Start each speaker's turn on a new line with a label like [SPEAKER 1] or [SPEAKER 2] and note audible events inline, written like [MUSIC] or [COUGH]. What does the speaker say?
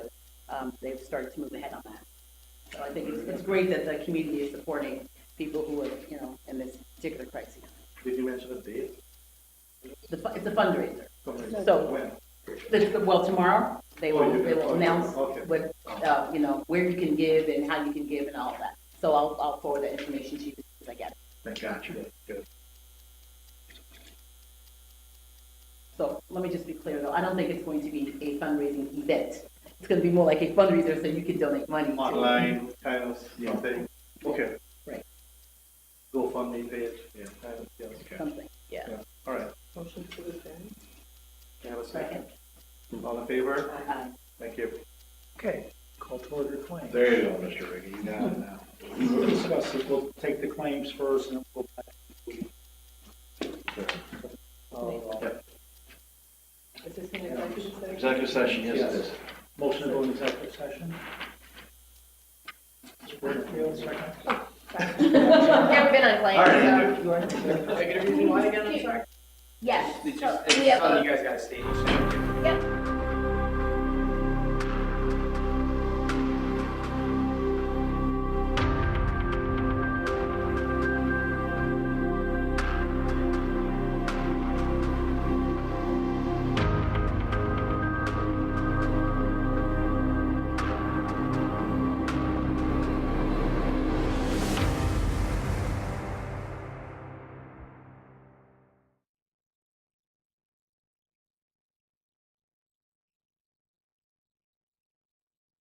[SPEAKER 1] um, they've started to move ahead on that. So I think it's, it's great that the community is supporting people who are, you know, in this particular crisis.
[SPEAKER 2] Did you mention a date?
[SPEAKER 1] The, fu- it's a fundraiser.
[SPEAKER 2] Something-
[SPEAKER 1] So-
[SPEAKER 2] When?
[SPEAKER 1] The- the- Well, tomorrow, they
[SPEAKER 2] Oh,
[SPEAKER 1] will,
[SPEAKER 2] you-
[SPEAKER 1] they will
[SPEAKER 2] okay,
[SPEAKER 1] announce
[SPEAKER 2] okay.
[SPEAKER 1] what, uh, you know, where you can give and how you can give and all that. So I'll, I'll forward that information to you as I get it.
[SPEAKER 2] Gotcha. Good.
[SPEAKER 1] So let me just be clear though, I don't think it's going to be a fundraising event. It's gonna be more like a fundraiser so you can donate money to.
[SPEAKER 2] Online kind of yeah, thing, okay.
[SPEAKER 1] Right.
[SPEAKER 2] GoFundMe page, yeah, kind of, yeah, okay.
[SPEAKER 1] Something, yeah.
[SPEAKER 2] Yeah, All right,
[SPEAKER 3] Motion to adjourn.
[SPEAKER 2] Can I have a second,
[SPEAKER 1] Second.
[SPEAKER 2] all in favor?
[SPEAKER 1] Aye.
[SPEAKER 2] Thank you.
[SPEAKER 4] Okay, call toward your claim.
[SPEAKER 5] There you go, Mr. Ricky, you got it
[SPEAKER 1] [LAUGHS]
[SPEAKER 5] now.
[SPEAKER 4] We'll discuss it, we'll take the claims first and then we'll. Uh,
[SPEAKER 3] Is this an executive session?
[SPEAKER 5] Executive session, yes, it is.
[SPEAKER 4] Motion to go into executive session. Mr. Porterfield, second.
[SPEAKER 6] Never been on
[SPEAKER 5] All right,
[SPEAKER 6] claim, so.
[SPEAKER 7] Executive reason why again, I'm sorry?
[SPEAKER 6] Yes.
[SPEAKER 7] Did you,
[SPEAKER 6] So,
[SPEAKER 7] it's
[SPEAKER 6] we have a-
[SPEAKER 7] something you guys gotta state.
[SPEAKER 6] Yep.